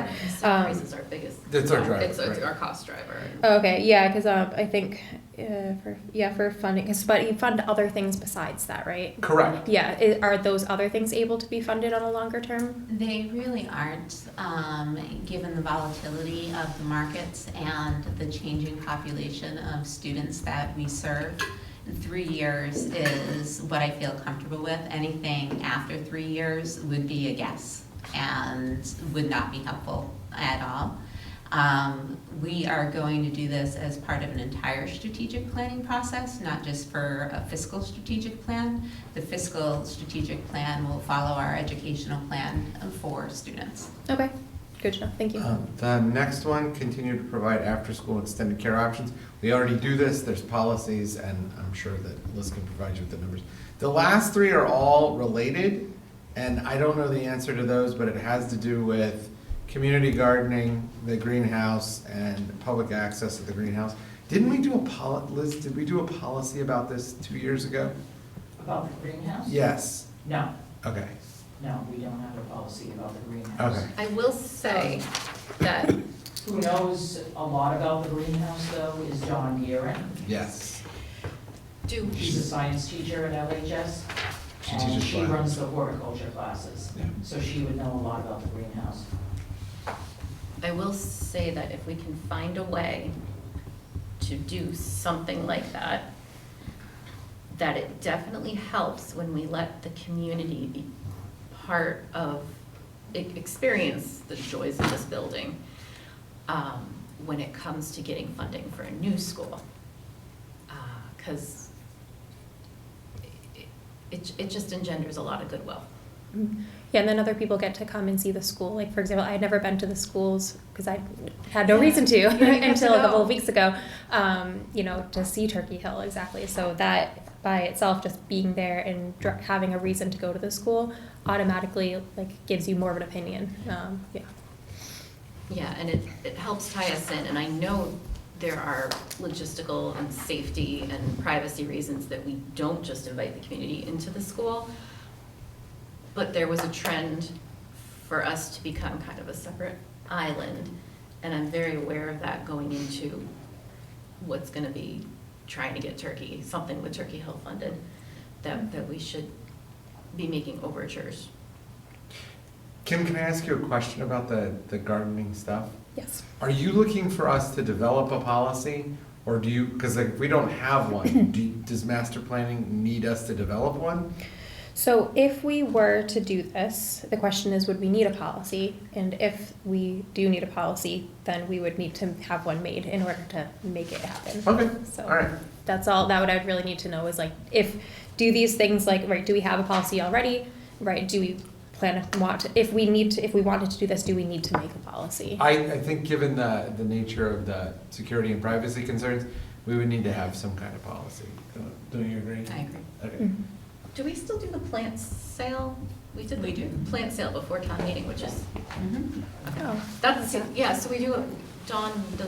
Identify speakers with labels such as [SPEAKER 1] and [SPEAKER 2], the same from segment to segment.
[SPEAKER 1] tax
[SPEAKER 2] Um,
[SPEAKER 1] increase is our biggest.
[SPEAKER 3] That's our
[SPEAKER 1] yeah,
[SPEAKER 3] driver,
[SPEAKER 1] It's, it's
[SPEAKER 3] right.
[SPEAKER 1] our cost driver.
[SPEAKER 2] Oh, okay, yeah, because um, I think uh, for yeah for funding, 'cause- but you fund other things besides that, right?
[SPEAKER 3] Correct.
[SPEAKER 2] Yeah, i are those other things able to be funded on a longer term?
[SPEAKER 4] They really aren't, um, given the volatility of the markets and the changing population of students that we serve. Three years is what I feel comfortable with. Anything after three years would be a guess and would not be helpful at all. Um, we are going to do this as part of an entire strategic planning process, not just for a fiscal strategic plan. The fiscal strategic plan will follow our educational plan for students.
[SPEAKER 2] Okay, good to know. Thank
[SPEAKER 1] Uh.
[SPEAKER 2] you.
[SPEAKER 3] Um, The next one, continue to provide after-school and extended care options. We already do this, there's policies, and I'm sure that Liz can provide you with the numbers. The last three are all related, and I don't know the answer to those, but it has to do with community gardening, the greenhouse, and public access to the greenhouse. Didn't we do a poli, Liz, did we do a policy about this two years ago?
[SPEAKER 5] About the greenhouse?
[SPEAKER 3] Yes,
[SPEAKER 5] No,
[SPEAKER 3] okay,
[SPEAKER 5] no, we don't have a policy about the greenhouse.
[SPEAKER 3] okay.
[SPEAKER 1] I will say that
[SPEAKER 5] Who knows a lot about the greenhouse though is Dawn Murin.
[SPEAKER 3] Yes,
[SPEAKER 1] do,
[SPEAKER 5] She's a science teacher at LHS.
[SPEAKER 3] She teaches
[SPEAKER 5] And she
[SPEAKER 3] classes.
[SPEAKER 5] runs the horticulture classes,
[SPEAKER 3] Yeah.
[SPEAKER 5] so she would know a lot about the greenhouse.
[SPEAKER 1] I will say that if we can find a way to do something like that, that it definitely helps when we let the community be part of, e- experience the joys of this building um, when it comes to getting funding for a new school. Because it, it just engenders a lot of goodwill.
[SPEAKER 2] Mm. Yeah, and then other people get to come and see the school. Like for example, I had never been to the schools because I had no
[SPEAKER 1] Yeah,
[SPEAKER 2] reason to
[SPEAKER 1] you didn't have to
[SPEAKER 2] until a couple
[SPEAKER 1] go.
[SPEAKER 2] of weeks ago. Um, you know, to see Turkey Hill exactly. So that by itself, just being there and dr- having a reason to go to the school, automatically like gives you more of an opinion. Um, yeah.
[SPEAKER 1] Yeah, and it, it helps tie us in, and I know there are logistical and safety and privacy reasons that we don't just invite the community into the school. But there was a trend for us to become kind of a separate island, and I'm very aware of that going into what's gonna be trying to get Turkey, something with Turkey Hill funded, that, that we should be making overtures.
[SPEAKER 3] Kim, can I ask you a question about the, the gardening stuff?
[SPEAKER 2] Yes.
[SPEAKER 3] Are you looking for us to develop a policy, or do you, because like, we don't have one, do, does master planning need us to develop one?
[SPEAKER 2] So if we were to do this, the question is, would we need a policy? And if we do need a policy, then we would need to have one made in order to make it happen.
[SPEAKER 3] Okay,
[SPEAKER 2] So-
[SPEAKER 3] all right,
[SPEAKER 2] That's all, that would, I'd really need to know is like, if, do these things like, right, do we have a policy already? Right, do we plan, want, if we need to, if we wanted to do this, do we need to make a policy?
[SPEAKER 3] I, I think given the, the nature of the security and privacy concerns, we would need to have some kind of policy. Don't- Don't you agree?
[SPEAKER 4] I agree.
[SPEAKER 3] Okay.
[SPEAKER 2] Mhm.
[SPEAKER 1] Do we still do the plant sale? We did
[SPEAKER 4] We
[SPEAKER 1] the
[SPEAKER 4] do.
[SPEAKER 1] plant sale before town meeting, which is,
[SPEAKER 4] Mm-hmm.
[SPEAKER 2] Oh,
[SPEAKER 1] that's, yeah, so we do, Dawn does,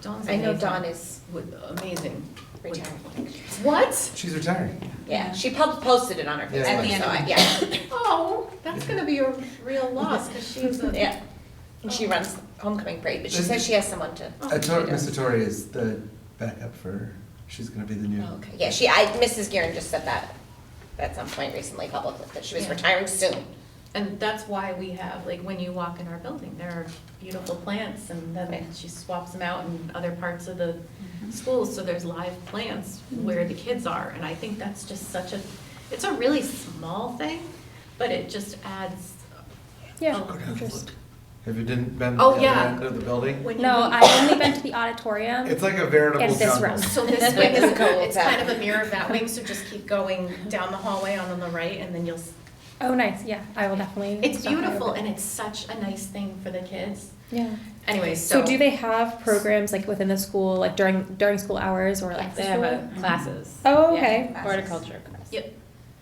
[SPEAKER 1] Dawn's
[SPEAKER 6] I
[SPEAKER 1] amazing.
[SPEAKER 6] know Dawn is-
[SPEAKER 1] with- Amazing. with-
[SPEAKER 6] Retiring.
[SPEAKER 1] What?
[SPEAKER 3] She's retiring.
[SPEAKER 6] Yeah, she pub- posted it on her
[SPEAKER 3] Yeah.
[SPEAKER 6] Facebook.
[SPEAKER 3] At the
[SPEAKER 4] end
[SPEAKER 6] so
[SPEAKER 4] of
[SPEAKER 6] I-
[SPEAKER 4] it.
[SPEAKER 6] Yeah,
[SPEAKER 1] Oh, that's gonna be a real loss, because she's a.
[SPEAKER 6] yeah. And she runs homecoming parade, but she
[SPEAKER 3] Is-
[SPEAKER 6] says Oh, she has someone to.
[SPEAKER 3] Uh, Tor- Mr. Torrey is the backup for, she's gonna be the new.
[SPEAKER 6] Oh, Okay. Yeah, she, I, Mrs. Guerin just said that at some point recently publicly, that she was
[SPEAKER 1] Yeah.
[SPEAKER 6] retiring soon.
[SPEAKER 1] And that's why we have, like, when you walk in our building, there are beautiful plants, and then
[SPEAKER 6] Right.
[SPEAKER 1] she swaps them out in other parts of the
[SPEAKER 2] Mm-hmm.
[SPEAKER 1] school, so there's live plants where the kids are, and I think that's just such a, it's a really small thing, but it just adds.
[SPEAKER 2] yeah.
[SPEAKER 1] Oh,
[SPEAKER 2] interest.
[SPEAKER 3] Have you didn't been to the
[SPEAKER 1] Oh,
[SPEAKER 3] other
[SPEAKER 1] yeah.
[SPEAKER 3] end of the building?
[SPEAKER 1] When you
[SPEAKER 2] No,
[SPEAKER 1] leave-
[SPEAKER 2] I've only been to the auditorium.
[SPEAKER 3] It's like a veritable
[SPEAKER 2] And um, this
[SPEAKER 3] jungle.
[SPEAKER 2] room.
[SPEAKER 1] So this wing is,
[SPEAKER 6] Doesn't go
[SPEAKER 1] it's
[SPEAKER 6] that
[SPEAKER 1] kind of a mirror of that wing, so just keep going down the hallway on the right, and then you'll, s-
[SPEAKER 2] Oh, nice, yeah, I will definitely.
[SPEAKER 1] it's
[SPEAKER 2] stop by
[SPEAKER 1] beautiful,
[SPEAKER 2] over.
[SPEAKER 1] and it's such a nice thing for the kids.
[SPEAKER 2] Yeah.
[SPEAKER 1] Anyway, so.
[SPEAKER 2] So do they have programs like within the school, like during, during school hours or like
[SPEAKER 1] They
[SPEAKER 2] school?
[SPEAKER 1] have a- classes.
[SPEAKER 2] Oh,
[SPEAKER 1] Yeah.
[SPEAKER 2] okay.
[SPEAKER 6] Horticulture
[SPEAKER 1] Yep,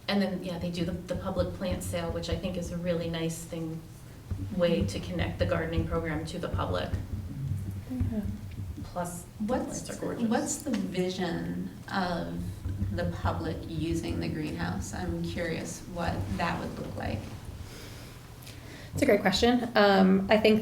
[SPEAKER 1] and then, yeah, they do the, the public plant sale, which I think is a really nice thing, way to connect the gardening program to the public,
[SPEAKER 2] Yeah.
[SPEAKER 1] plus the
[SPEAKER 4] What's,
[SPEAKER 1] plants are gorgeous.
[SPEAKER 4] what's the vision of the public using the greenhouse? I'm curious what that would look like.
[SPEAKER 2] It's a great question. Um, I think